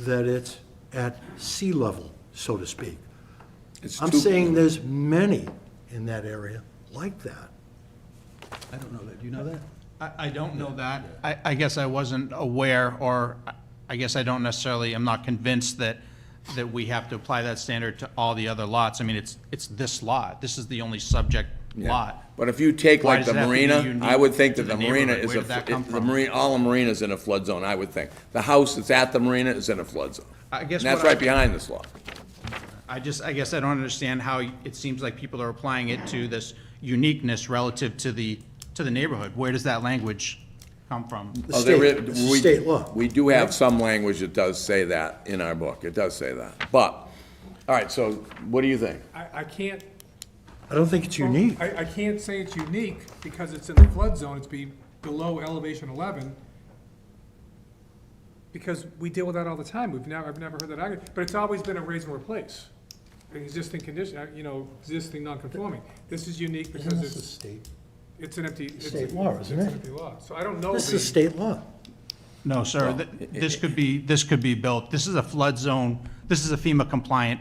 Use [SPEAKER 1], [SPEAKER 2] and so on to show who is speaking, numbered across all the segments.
[SPEAKER 1] that it's at sea level, so to speak.
[SPEAKER 2] It's
[SPEAKER 1] I'm
[SPEAKER 2] too-
[SPEAKER 1] saying there's many in that area like that.
[SPEAKER 3] I don't know that, do you know that?
[SPEAKER 4] I, I don't know that. I, I guess I wasn't aware, or I- I guess I don't necessarily, I'm not convinced that, that we have to apply that standard to all the other lots. I mean, it's, it's this lot. This is the only subject
[SPEAKER 2] Yeah.
[SPEAKER 4] lot.
[SPEAKER 2] But if you take
[SPEAKER 4] Why
[SPEAKER 2] like
[SPEAKER 4] does
[SPEAKER 2] the
[SPEAKER 4] it have to be
[SPEAKER 2] marina,
[SPEAKER 4] unique
[SPEAKER 2] I would think
[SPEAKER 4] to
[SPEAKER 2] that the
[SPEAKER 4] the
[SPEAKER 2] marina
[SPEAKER 4] neighborhood?
[SPEAKER 2] is
[SPEAKER 4] Where
[SPEAKER 2] a,
[SPEAKER 4] did that
[SPEAKER 2] it-
[SPEAKER 4] come
[SPEAKER 2] the
[SPEAKER 4] from?
[SPEAKER 2] marina, all the marina's in a flood zone, I would think. The house that's at the marina is in a flood zone.
[SPEAKER 4] I guess
[SPEAKER 2] And that's
[SPEAKER 4] what I-
[SPEAKER 2] right behind this lot.
[SPEAKER 4] I just, I guess I don't understand how it seems like people are applying it to this uniqueness relative to the, to the neighborhood. Where does that language come from?
[SPEAKER 1] The
[SPEAKER 2] Oh, there
[SPEAKER 1] state,
[SPEAKER 2] is-
[SPEAKER 1] it's a
[SPEAKER 2] we-
[SPEAKER 1] state law.
[SPEAKER 2] We do have some language that does say that in our book, it does say that. But, all right, so what do you think?
[SPEAKER 5] I, I can't.
[SPEAKER 1] I don't think it's unique.
[SPEAKER 5] I, I can't say it's unique because it's in the flood zone, it's be below elevation eleven. Because we deal with that all the time, we've never, I've never heard that argument, but it's always been a raise and replace. An Existing condition, uh, you know, existing non-conforming. This is unique
[SPEAKER 1] Isn't
[SPEAKER 5] because
[SPEAKER 1] this a
[SPEAKER 5] it's,
[SPEAKER 1] state?
[SPEAKER 5] it's an empty. it's-
[SPEAKER 1] state law, isn't
[SPEAKER 5] It's
[SPEAKER 1] it?
[SPEAKER 5] an empty lot, so I don't know.
[SPEAKER 1] This
[SPEAKER 5] the-
[SPEAKER 1] is state law.
[SPEAKER 4] No, sir, th- this could be, this could be built. This is a flood zone, this is a FEMA compliant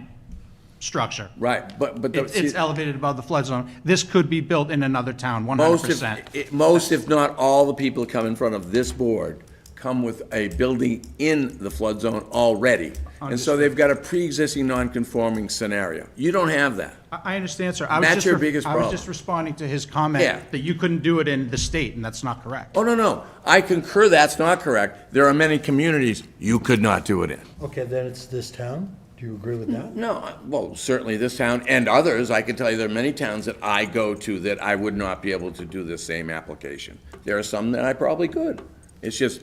[SPEAKER 4] structure.
[SPEAKER 2] Right, but, but. the-
[SPEAKER 4] It's it's elevated above the flood zone. This could be built in another town, one hundred
[SPEAKER 2] Most if,
[SPEAKER 4] percent.
[SPEAKER 2] it- most if not all the people that come in front of this board come with a building in the flood zone already. And so they've got a pre-existing non-conforming scenario. You don't have that.
[SPEAKER 4] I I understand, sir. I was
[SPEAKER 2] That's
[SPEAKER 4] just
[SPEAKER 2] your
[SPEAKER 4] ref-
[SPEAKER 2] biggest
[SPEAKER 4] I was
[SPEAKER 2] problem.
[SPEAKER 4] just responding to his
[SPEAKER 2] Yeah.
[SPEAKER 4] comment that you couldn't do it in the state, and that's not correct.
[SPEAKER 2] Oh, no, no, I concur that's not correct. There are many communities you could not do it in.
[SPEAKER 1] Okay, then it's this town? Do you agree with that?
[SPEAKER 2] No, I- well, certainly this town and others, I can tell you there are many towns that I go to that I would not be able to do the same application. There are some that I probably could. It's just,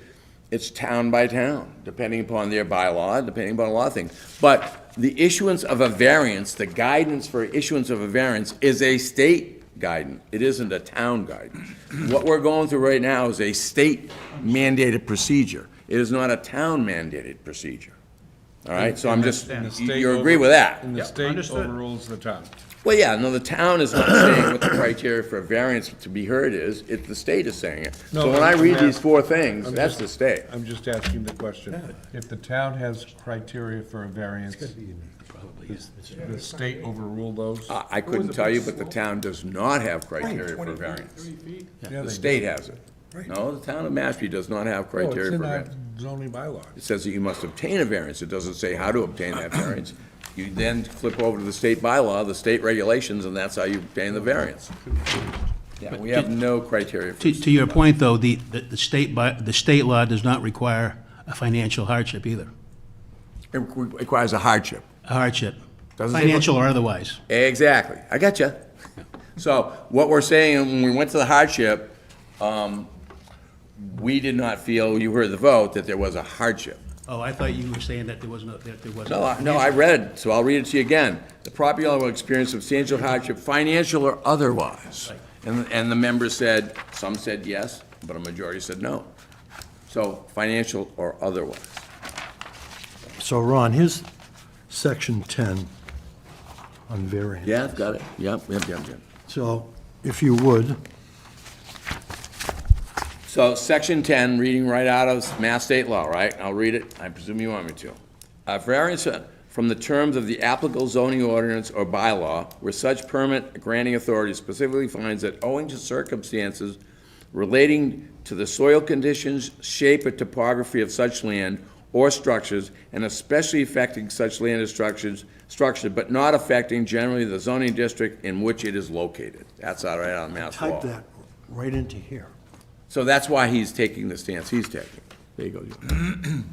[SPEAKER 2] it's town by town, depending upon their bylaw, depending upon a lot of things. But the issuance of a variance, the guidance for issuance of a variance is a state guidance. It isn't a town guidance. What we're going through right now is a state mandated procedure. It is not a town mandated procedure. All right, so I'm just,
[SPEAKER 4] And
[SPEAKER 2] you
[SPEAKER 4] the
[SPEAKER 2] you agree with that?
[SPEAKER 6] And the
[SPEAKER 2] Yep.
[SPEAKER 6] state
[SPEAKER 4] Understood.
[SPEAKER 6] overrules the town.
[SPEAKER 2] Well, yeah, no, the town is not saying what the criteria for a variance to be heard is, it, the state is saying it.
[SPEAKER 6] No,
[SPEAKER 2] So when I
[SPEAKER 6] I'm-
[SPEAKER 2] read
[SPEAKER 6] I'm-
[SPEAKER 2] these four things,
[SPEAKER 6] I'm
[SPEAKER 2] that's
[SPEAKER 6] just-
[SPEAKER 2] the state.
[SPEAKER 6] I'm just asking the question. If the town has criteria for a variance, does the state overrule those?
[SPEAKER 2] I, I couldn't tell you, but the town does not have criteria for variance.
[SPEAKER 6] Yeah,
[SPEAKER 2] The
[SPEAKER 6] they
[SPEAKER 2] state
[SPEAKER 6] do.
[SPEAKER 2] has it. No, the town of Mashpee does not have
[SPEAKER 6] Oh,
[SPEAKER 2] criteria
[SPEAKER 6] It's
[SPEAKER 2] for
[SPEAKER 6] in our
[SPEAKER 2] variance.
[SPEAKER 6] zoning bylaw.
[SPEAKER 2] It says that you must obtain a variance, it doesn't say how to obtain that variance. You then flip over to the state bylaw, the state regulations, and that's how you obtain the variance. Yeah, we have no criteria for
[SPEAKER 7] To, to your point, though, the, the the state, by the state law does not require a financial hardship either,
[SPEAKER 2] It requires a hardship.
[SPEAKER 7] a hardship,
[SPEAKER 2] Doesn't say-
[SPEAKER 7] financial or otherwise.
[SPEAKER 2] Exactly. I got you. So what we're saying, when we went to the hardship, um, we did not feel, you heard the vote, that there was a hardship.
[SPEAKER 7] Oh, I thought you were saying that there was no, that there wasn't.
[SPEAKER 2] No, I- no, I read it, so I'll read it to you again. The property owner will experience substantial hardship, financial or otherwise. And, and the members said, some said yes, but a majority said no. So financial or otherwise.
[SPEAKER 1] So Ron, here's section 10 on variance.
[SPEAKER 2] Yeah, I've got it. Yep, yep, yep, yep.
[SPEAKER 1] So if you would,
[SPEAKER 2] So, section 10, reading right out of Mass State law, right? I'll read it, I presume you want me to. A variance uh, from the terms of the applicable zoning ordinance or bylaw where such permit granting authority specifically finds that owing to circumstances relating to the soil conditions, shape, or topography of such land or structures, and especially affecting such land or structures, structure, but not affecting generally the zoning district in which it is located. That's out right out of Mass law.
[SPEAKER 1] type that right into here.
[SPEAKER 2] So that's why he's taking the stance he's taking. There you go. Joe.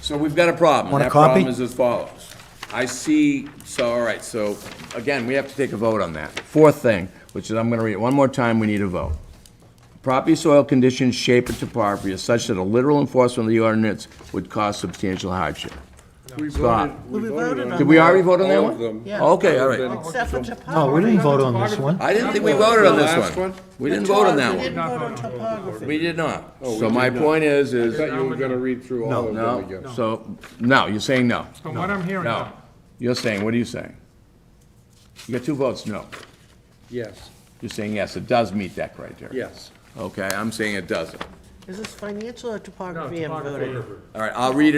[SPEAKER 2] So we've got a problem.
[SPEAKER 1] Want a
[SPEAKER 2] and That problem
[SPEAKER 1] copy?
[SPEAKER 2] is as follows. I see, so, all right, so, again, we have to take a vote on that. Fourth thing, which is, I'm gonna read it one more time, we need a vote. Property soil conditions, shape, and topography is such that a literal enforcement of the ordinance would cause substantial hardship.
[SPEAKER 8] We
[SPEAKER 2] Stop.
[SPEAKER 8] voted, we voted on.
[SPEAKER 2] Did we already vote on that
[SPEAKER 8] all of
[SPEAKER 2] one?
[SPEAKER 8] them.
[SPEAKER 7] Yeah.
[SPEAKER 2] Okay, all right.
[SPEAKER 8] Except for topography.
[SPEAKER 1] No, we didn't vote on this one.
[SPEAKER 2] I didn't think we voted on
[SPEAKER 6] The
[SPEAKER 2] this
[SPEAKER 6] last
[SPEAKER 2] one.
[SPEAKER 6] one?
[SPEAKER 2] We didn't vote on that
[SPEAKER 8] We
[SPEAKER 2] one.
[SPEAKER 8] didn't vote on topography.
[SPEAKER 2] We did not. So my point is, is.
[SPEAKER 6] Thought you were gonna read through all of them again.
[SPEAKER 2] No, so, no, you're saying no.
[SPEAKER 5] From what I'm hearing,
[SPEAKER 2] No.
[SPEAKER 5] no.
[SPEAKER 2] You're saying, what are you saying? You got two votes, no.
[SPEAKER 6] Yes,
[SPEAKER 2] You're saying yes, it does meet that criteria.
[SPEAKER 6] yes.
[SPEAKER 2] Okay, I'm saying it doesn't.
[SPEAKER 8] Is this financial or topography
[SPEAKER 5] No,
[SPEAKER 8] I'm
[SPEAKER 5] topography.
[SPEAKER 8] voting?
[SPEAKER 2] All right, I'll read it.